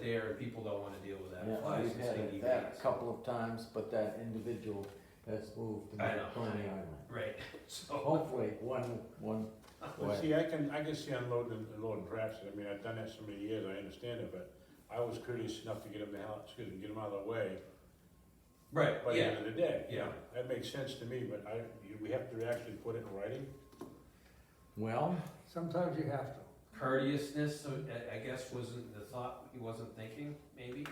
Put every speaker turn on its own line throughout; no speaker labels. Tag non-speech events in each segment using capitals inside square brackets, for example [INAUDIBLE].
there, and people don't wanna deal with that.
Yeah,
Flies
we've
and
had
stinky
it that
bees.
a couple of times, but that individual has moved to
I know.
Coney Island.
Right, [LAUGHS]
[LAUGHS]
so,
Hopefully, one, one,
Well,
Right.
see, I can, I can see unloading and loading trash, I mean, I've done that so many years, I understand it, but I was courteous enough to get them the hell, excuse me, get them out of the way
right,
by the
yeah,
end of the day. you
yeah.
know. That makes sense to me, but I, you- we have to actually put it in writing.
well,
Sometimes you have to.
courteousness, so I, I guess wasn't the thought, he wasn't thinking, maybe?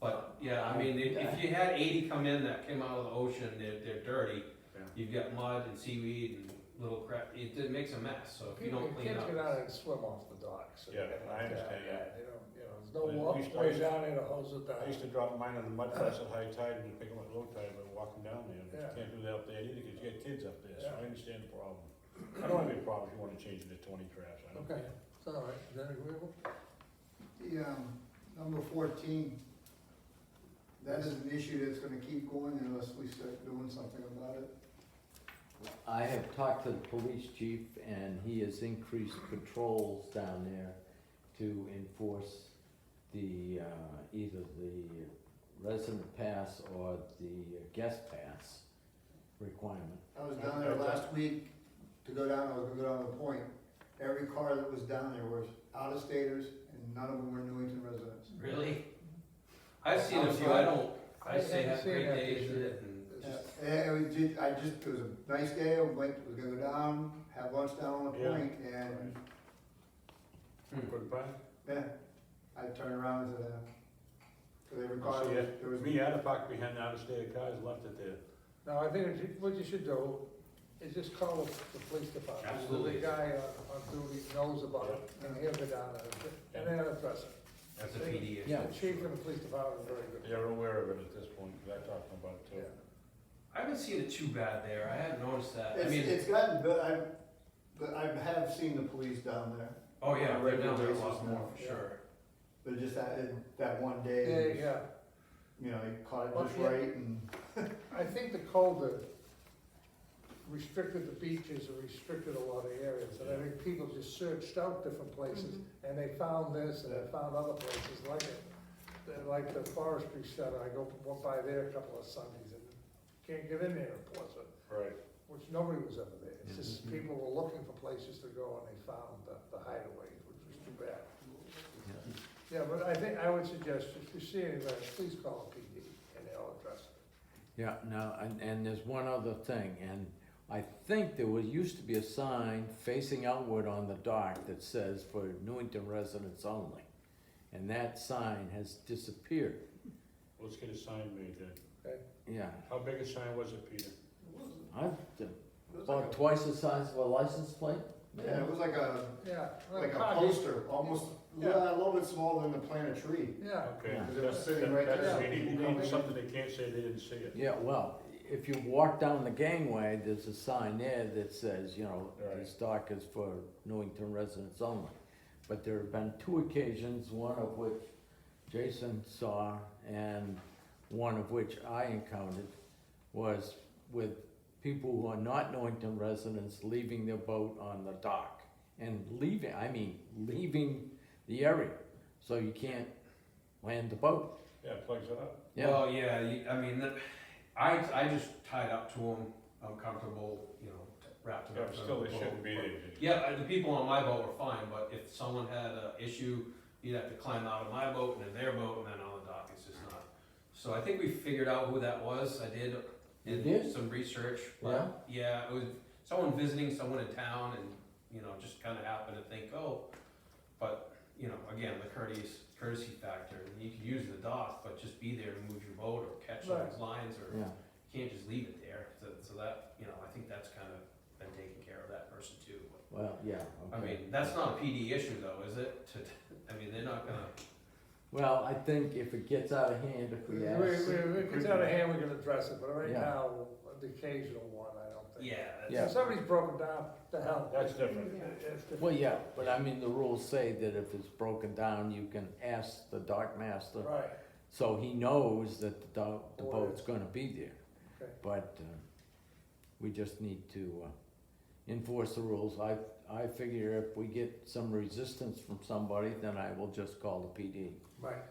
But, yeah, I mean, if, if you had eighty come in that came out of the ocean, they're, they're dirty,
Yeah.
you've got mud and seaweed and little crap, it, it makes a mess, so if you
People-
don't clean up.
Kids get out and swim off the docks. and
Yeah,
everything
I
like that.
understand, yeah.
They don't, you know, there's
But we
no walkway
used-
down there to hose it
I used
down.
to drop mine in the mud flats at high tide and just pick them up at low tide, but walking down there, but
Yeah.
you can't do that up there either, cause you got kids up there, so I
Yeah.
understand the problem. I don't have any problem if you wanna change it to twenty trash, I don't.
Okay, it's all right, is that agreeable?
The, um, number fourteen, that is an issue that's gonna keep going unless we start doing something about it.
I have talked to the police chief and he has increased patrols down there to enforce the, uh, either the resident pass or the guest pass requirement.
I was down there last week to go down, I was gonna go down to the point. Every car that was down there was out of staters and none of them were Newington residents.
Really? I've seen a few, I don't, I say have
see
great
that
days
issue.
in it and.
Yeah, and it was just, I just, it was a nice day, I went, was gonna go down, have lunch down on the
Yeah.
point and,
Hmm.
Goodbye.
yeah, I turned around and said, uh, cause every car,
Oh, So, yeah,
there was
Me, I'd have parked behind the out-of-state cars, left it there.
No, I think that you- what you should do is just call the the police department.
Absolutely.
The guy on- on duty knows about it, and he'll go down there, and then address it.
That's a PD issue.
Yeah.
The chief and the police department are very good.
They're aware of it at this point, because I talked to them about it too.
Yeah.
I haven't seen it too bad there, I hadn't noticed that, I
It's,
mean,
it's gotten, but I, but I have seen the police down there,
oh yeah, right now there's a lot
Regular
more for
basis now.
sure.
but just that, that one
Yeah,
day,
yeah.
you know, he caught it
Well,
just
yeah.
right and.
I think the code that restricted the beaches and restricted a lot of areas, and I think people just searched out different places, and they found this, and they found other places like it. They're Like the forestry center, I go went by there a couple of Sundays, and can't get in there in Portsmouth,
Right.
which nobody was ever there. It's just people were looking for places to go, and they found the, the hideaways, which was too bad. Yeah, but I think, I would suggest, if you see anybody, please call PD, and they'll address it.
Yeah, no, and, and there's one other thing, and I think there was, used to be a sign facing outward on the dock that says for Newington residents only. And that sign has disappeared,
Let's get a sign made then.
yeah.
How big a sign was it, Peter?
I've,
It was like
about twice the size of a license plate?
a- Yeah, it was like a,
Yeah.
like a
car,
poster, almost,
Yeah.
yeah, a little bit smaller than to plant a tree.
Yeah,
Okay.
Yeah.
They're sitting right
That's-
there.
We need we need something they can't say they didn't see it.
Yeah, well, if you walk down the gangway, there's a sign there that says, you know,
Right.
this dock is for Newington residents only. But there have been two occasions, one of which Jason saw and one of which I encountered was with people who are not Newington residents leaving their boat on the dock. And leaving, I mean, leaving the area, so you can't land the boat,
Yeah, it plugs it up.
yeah.
Well, yeah, you- I mean, that- I, I just tied up to them, I'm comfortable, you know, wrapped it
Yeah,
up.
but
to
still,
the
they shouldn't be
boat.
there.
Yeah, uh, the people on my boat were fine, but if someone had an issue, you'd have to climb out of my boat and then their boat and then on the dock, it's just not. So I think we figured out who that was, I did,
You
did
did?
some research, but, yeah, it was someone visiting someone in town and, you know, just kinda happened to think, oh, but, you know, again, the courteous, courtesy factor, you can use the dock, but just be there to move your boat or catch those lines or
Yeah.
you can't just leave it there, so, so that, you know, I think that's kinda been taken care of that person too, but-
Well, yeah,
I
okay.
mean, that's not a PD issue though, is it? [LAUGHS] To, I mean, they're not gonna,
Well, I think if it gets out of hand, if
we,
we
we,
ask,
we- if it's out of hand, we can address it, but right
Yeah.
now, the occasional one, I don't think.
yeah, that's-
Yeah.
If somebody's broken down, the hell.
That's different.
It's the-
well, yeah, but I mean, the rules say that if it's broken down, you can ask the dock master,
Right,
so he knows that the dock, the
Or-
boat's gonna be there.
Okay.
But, uh, we just need to, uh, enforce the rules, I, I figure if we get some resistance from somebody, then I will just call the PD.
Right.